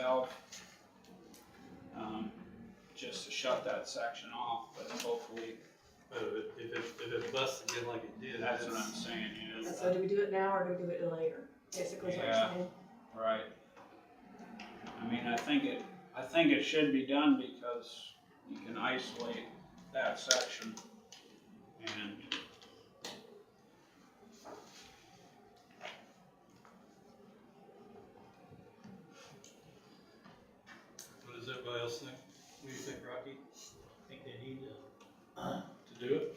help. Um, just to shut that section off, but hopefully, But Oh, if it, if it busts again like it did, that's what I'm that's, saying, you know, So do we do it now or do we do it later? Basically is what you're Yeah. saying. right? I mean, I think it, I think it should be done because you can isolate that section and. what does everybody else think? What do you think, Rocky? I think they need to, To do it?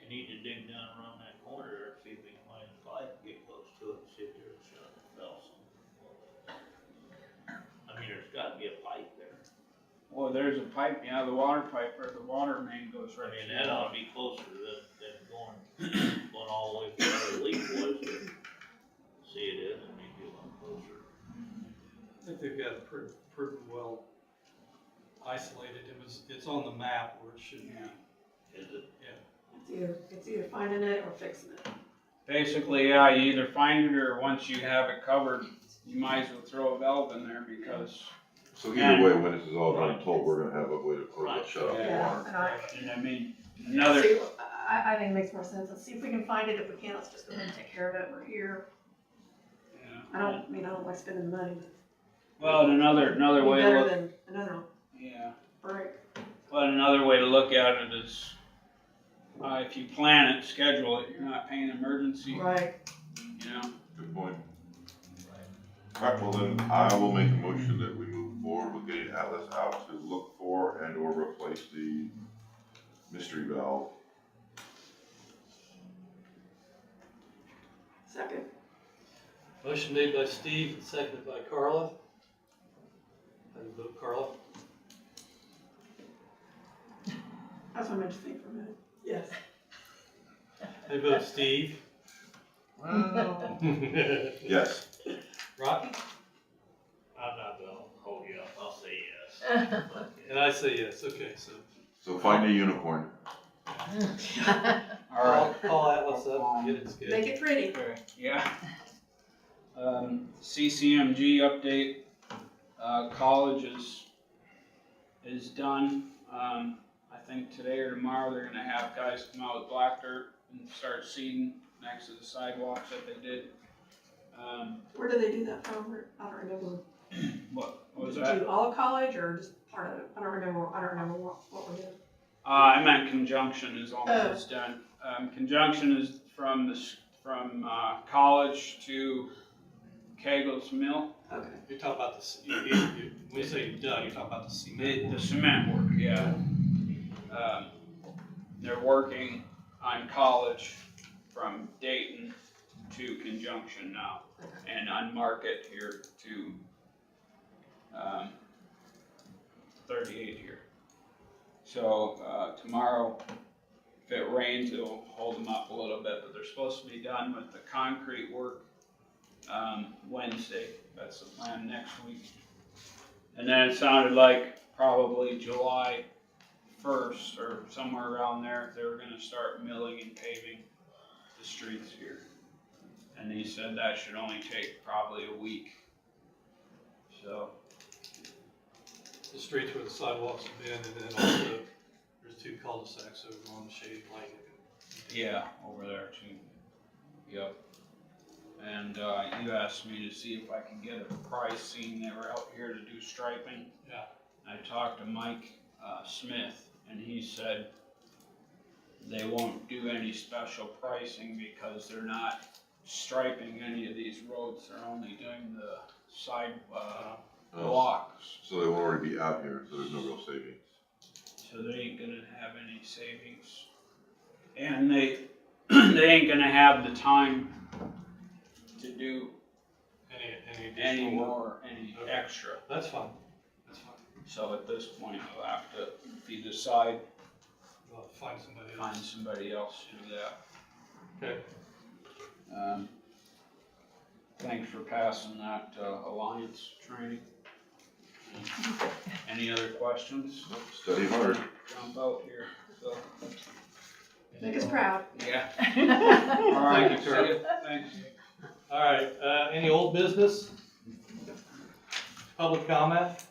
they need to dig down around that corner there, see if they can find a pipe, get close to it, sit there and shut it fell I mean, there's gotta be a pipe there. Well, there's a pipe, yeah, the water pipe or the water main goes I right. mean, to that the- ought to be closer than, than going, going all the way from where the leak was to see it is, it may be a lot closer. I think they've got it pretty, pretty well isolated. It was, it's on the map where it should be. Yeah. Is it, It's either, it's either finding it or fixing it. Basically, yeah, you either find it or once you have it covered, you might as well throw a valve in there because, So either way, when this is all done, told, we're gonna have a way to close Right. that shut off the Yeah. water. And I, and I mean, another, See, I, I think it makes more sense. Let's see if we can find it. If we can, let's just go ahead and take care of it. We're here. I yeah. don't, I mean, I don't like spending the money. well, and another, another Be way to Better look, than another yeah, break. but another way to look at it is, uh, if you plan it, schedule it, you're not paying emergency, Right. you know? Good point. Alright, well then, I will make a motion that we move forward with getting Atlas out to look for and or replace the mystery valve. Second. Motion made by Steve and seconded by Carla. How do you vote, Carla? That's what I meant to think for a minute. Yes. I vote Steve. Yes, Rocky? I'm not gonna hold you up, I'll say yes. And I say yes, okay, so. so find a unicorn. All right. Call- Call Atlas up, get it Make scheduled. it pretty. Okay, yeah. Um, CCMG update, uh, college is, is done. Um, I think today or tomorrow, they're gonna have guys come out with black dirt and start seeding next to the sidewalks that they did. Um, Where do they do that from? Where- I don't remember. what, what was Did that? you do all of college or just part of it? I don't remember. I don't remember what, what we did. Uh, I meant conjunction is almost done. Um, conjunction is from the, s- from, uh, college to Kegel's Mill. Okay. You're talking about the, c- you, you, you, when you say done, you're talking about the cement. The, the cement work, yeah. Um, they're working on college from Dayton to Conjunction now, and on Market here to, um, thirty-eight here. So, uh, tomorrow, if it rains, it'll hold them up a little bit, but they're supposed to be done with the concrete work, um, Wednesday, that's the plan next week. And then it sounded like probably July first or somewhere around there, they were gonna start milling and paving the streets here. And he said that should only take probably a week. So, the streets where the sidewalks have been, and then also, there's two cul-de-sacs over on the shade lane. yeah, over there too. Yep. And, uh, you asked me to see if I could get a price, seeing they were out here to do striping. Yeah. I talked to Mike, uh, Smith, and he said they won't do any special pricing because they're not striping any of these roads, they're only doing the side, uh, Oh, blocks. So they won't already be out here, so there's no real savings. So they ain't gonna have any savings. And they, they ain't gonna have the time to do Any, any any additional work? more, any Okay. extra. That's fine, that's fine. So at this point, I'll have to, if you decide, Well, find somebody find else. somebody else to do that. Okay, Um, Thanks for passing that uh, alliance training. Any other questions? Study hard. Jump out here, so, Make us proud. yeah. Thank All right, you, see Kurt. ya. Thanks. all right, uh, any old business? Public comment?